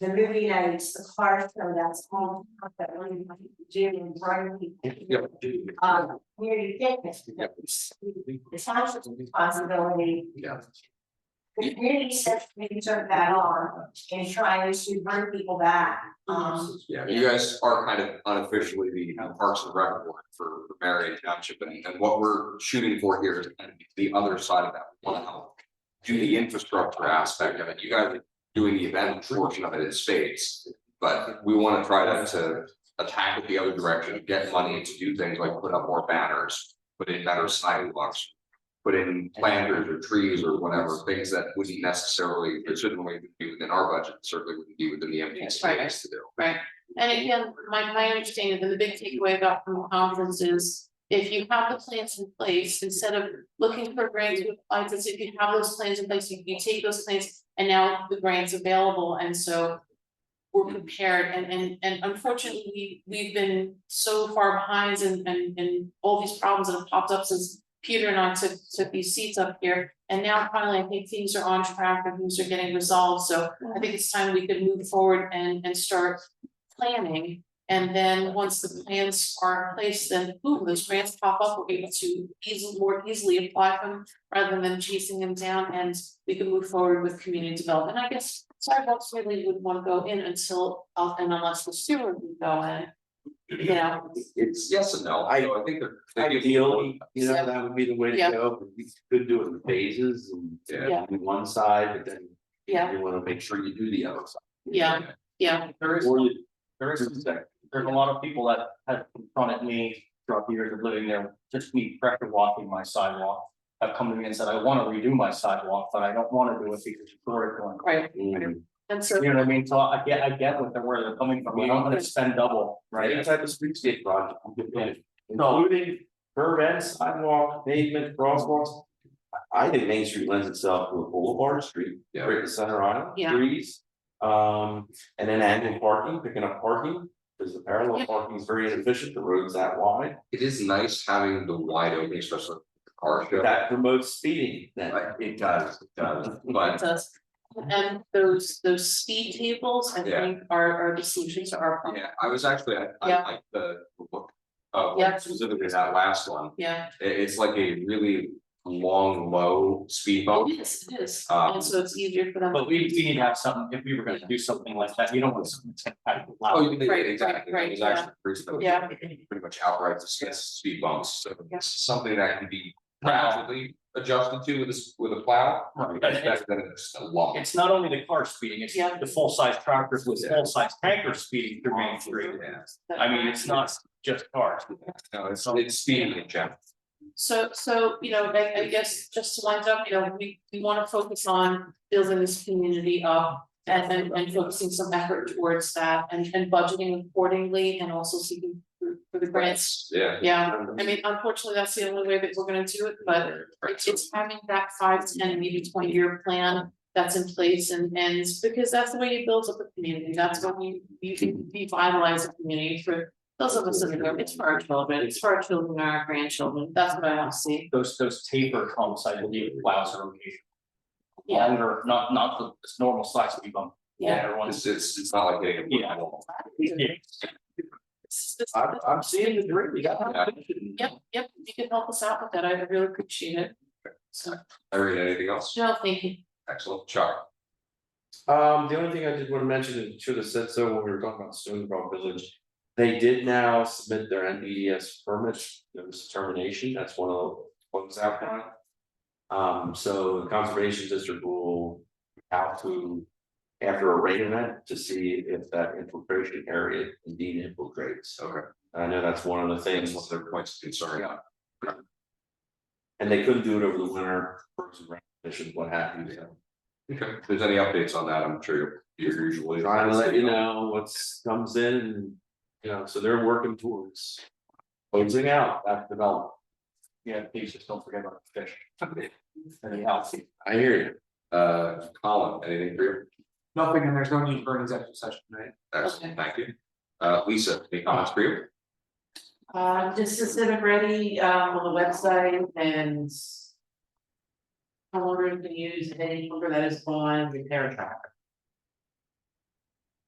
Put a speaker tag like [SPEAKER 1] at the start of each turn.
[SPEAKER 1] the movie nights, the car show, that's all that one gym and Brighton.
[SPEAKER 2] Yep.
[SPEAKER 1] Um, community fitness.
[SPEAKER 2] Yep.
[SPEAKER 1] The township's responsibility,
[SPEAKER 2] Yeah.
[SPEAKER 1] the community says we can turn that on and try to bring people back, um.
[SPEAKER 2] Yeah, you guys are kind of unofficially the Parks and Rec board for for Marion Township, and and what we're shooting for here is kind of the other side of that. We want to help do the infrastructure aspect of it, you guys are doing the event portion of it in spades. But we want to try to to attack it the other direction, get money to do things like put up more banners, put in better sidewalks. Put in planters or trees or whatever, things that wouldn't necessarily, it shouldn't really be within our budget, certainly wouldn't be within the MPC
[SPEAKER 3] Right.
[SPEAKER 2] to do.
[SPEAKER 3] And again, my, my understanding, the big takeaway about from the conference is, if you have the plans in place, instead of looking for grants with applied to, if you have those plans in place, you, you take those plans, and now the grant's available, and so we're prepared, and, and, and unfortunately, we, we've been so far behind and, and, and all these problems that have popped up since Peter and I took, took these seats up here, and now finally, I think things are on track, and things are getting resolved, so I think it's time we could move forward and, and start planning. And then, once the plans are in place, then boom, those grants pop up, we're able to easily, more easily apply for them. Rather than chasing them down and we can move forward with community development, I guess sidewalks really would want to go in until, uh, and unless the sewer would go in. You know,
[SPEAKER 2] It's yes and no, I know, I think they're. they give-
[SPEAKER 4] Ideally, you know,
[SPEAKER 3] So-
[SPEAKER 4] that would be the way to
[SPEAKER 3] Yeah.
[SPEAKER 4] go, but you could do it in phases and
[SPEAKER 3] Yeah.
[SPEAKER 4] do one side, but then.
[SPEAKER 3] Yeah.
[SPEAKER 4] You wanna make sure you do the other side.
[SPEAKER 3] yeah, yeah,
[SPEAKER 5] There is,
[SPEAKER 4] Or you
[SPEAKER 5] there
[SPEAKER 4] do
[SPEAKER 5] is,
[SPEAKER 4] the second.
[SPEAKER 5] there's a lot of people that have confronted me throughout the years of living there, just me pressure walking my sidewalk. Have come to me and said, I wanna redo my sidewalk, but I don't wanna do it because it's already going.
[SPEAKER 3] right,
[SPEAKER 4] Mm.
[SPEAKER 3] and so,
[SPEAKER 5] You know what I mean? So I get, I get what they're, where they're coming from. I don't wanna spend double,
[SPEAKER 4] Any
[SPEAKER 5] right?
[SPEAKER 4] type of streetscape project, you could finish,
[SPEAKER 5] No.
[SPEAKER 4] including curbs, sidewalk, pavement, crosswalks. I- I think Main Street lends itself to a boulevard street,
[SPEAKER 2] Yeah.
[SPEAKER 4] right in center aisle,
[SPEAKER 3] Yeah.
[SPEAKER 4] trees. Um, and then angle parking, picking up parking, because the parallel parking is very inefficient, the road's that wide.
[SPEAKER 2] It is nice having the wide open, especially with the car show.
[SPEAKER 4] That promotes speeding then.
[SPEAKER 2] Right, it does, it does, but
[SPEAKER 3] that's. And those, those speed tables, I
[SPEAKER 2] Yeah.
[SPEAKER 3] think, are, are the solution to our problem,
[SPEAKER 2] yeah, I was actually, I I
[SPEAKER 3] Yeah.
[SPEAKER 2] like the the book. Uh,
[SPEAKER 3] Yeah.
[SPEAKER 2] specifically that last one,
[SPEAKER 3] yeah,
[SPEAKER 2] I- it's like a really long, low speed bump.
[SPEAKER 3] it is, it is,
[SPEAKER 2] Um,
[SPEAKER 3] and so it's easier for them.
[SPEAKER 5] But we, we need to have something, if we were gonna do something like that, you don't want something to happen
[SPEAKER 2] Oh,
[SPEAKER 5] loud.
[SPEAKER 2] you did,
[SPEAKER 3] Right,
[SPEAKER 2] exactly,
[SPEAKER 3] right,
[SPEAKER 2] it was
[SPEAKER 3] right,
[SPEAKER 2] actually pretty-
[SPEAKER 3] Oh, Yeah.
[SPEAKER 2] Pretty much outright discussed speed bumps, so
[SPEAKER 3] Yeah.
[SPEAKER 2] it's something that can be gradually adjusted to with a s- with a plow.
[SPEAKER 5] Right.
[SPEAKER 2] That's better than just a lump.
[SPEAKER 5] It's not only the car speeding, it's
[SPEAKER 3] Yeah.
[SPEAKER 5] the full-size tractors with
[SPEAKER 2] Yeah.
[SPEAKER 5] full-size tankers speeding through Main Street.
[SPEAKER 2] Yeah,
[SPEAKER 5] I mean, it's not just cars.
[SPEAKER 2] no, it's it's speeding in general.
[SPEAKER 3] So, so, you know, I, I guess just to wind up, you know, we, we wanna focus on building this community up. And, and, and focusing some effort towards that and, and budgeting accordingly and also seeking for, for the grants.
[SPEAKER 2] Yeah.
[SPEAKER 3] Yeah, I mean, unfortunately, that's the only way that we're gonna do it, but it's, it's having that five, ten, maybe twenty year plan that's in place and, and because that's the way you build up a community. That's when you, you can revitalize a community for those of us in the group. It's for our children, it's for our children, and our grandchildren. That's what I want to see.
[SPEAKER 5] those those taper humps, I believe, allows are okay.
[SPEAKER 3] Yeah.
[SPEAKER 5] Longer, not not the this normal slash speed bump.
[SPEAKER 3] Yeah.
[SPEAKER 2] It's
[SPEAKER 5] Everyone's.
[SPEAKER 2] it's it's not like getting. a
[SPEAKER 5] Yeah.
[SPEAKER 2] normal.
[SPEAKER 5] Yeah.
[SPEAKER 3] This- this-
[SPEAKER 4] I'm, I'm seeing the dream, we got.
[SPEAKER 3] Yep, yep, if you can help us out with that, I really appreciate it. So,
[SPEAKER 2] I read anything else?
[SPEAKER 3] no, thank you.
[SPEAKER 2] Excellent, Chuck.
[SPEAKER 4] Um, the only thing I did wanna mention, and should have said so when we were talking about Stony Brook Village. They did now submit their NDDS permit, notice of termination, that's one of the ones out there. Um, so the conservation district will out to. After a rain event to see if that infiltration area indeed infiltrates,
[SPEAKER 2] Okay.
[SPEAKER 4] I know that's one of the
[SPEAKER 2] That's
[SPEAKER 4] things,
[SPEAKER 2] one of their points of concern.
[SPEAKER 4] and they couldn't do it over the winter, because of rain conditions, what have you, so.
[SPEAKER 2] Okay, if there's any updates on that, I'm sure you're you're usually.
[SPEAKER 4] Trying to let you know what's comes in, and you know, so they're working towards. Closing out that development.
[SPEAKER 5] Yeah, please just don't forget about the fish. Anything else?
[SPEAKER 4] I hear you.
[SPEAKER 2] Uh, Colin, anything for you?
[SPEAKER 6] Nothing, and there's no need for an executive session, right?
[SPEAKER 2] Excellent,
[SPEAKER 3] Okay.
[SPEAKER 2] thank you. Uh, Lisa, any comments for you?
[SPEAKER 3] Uh, just to sit ready, um, on the website and. However, you can use any number that is on repair tracker.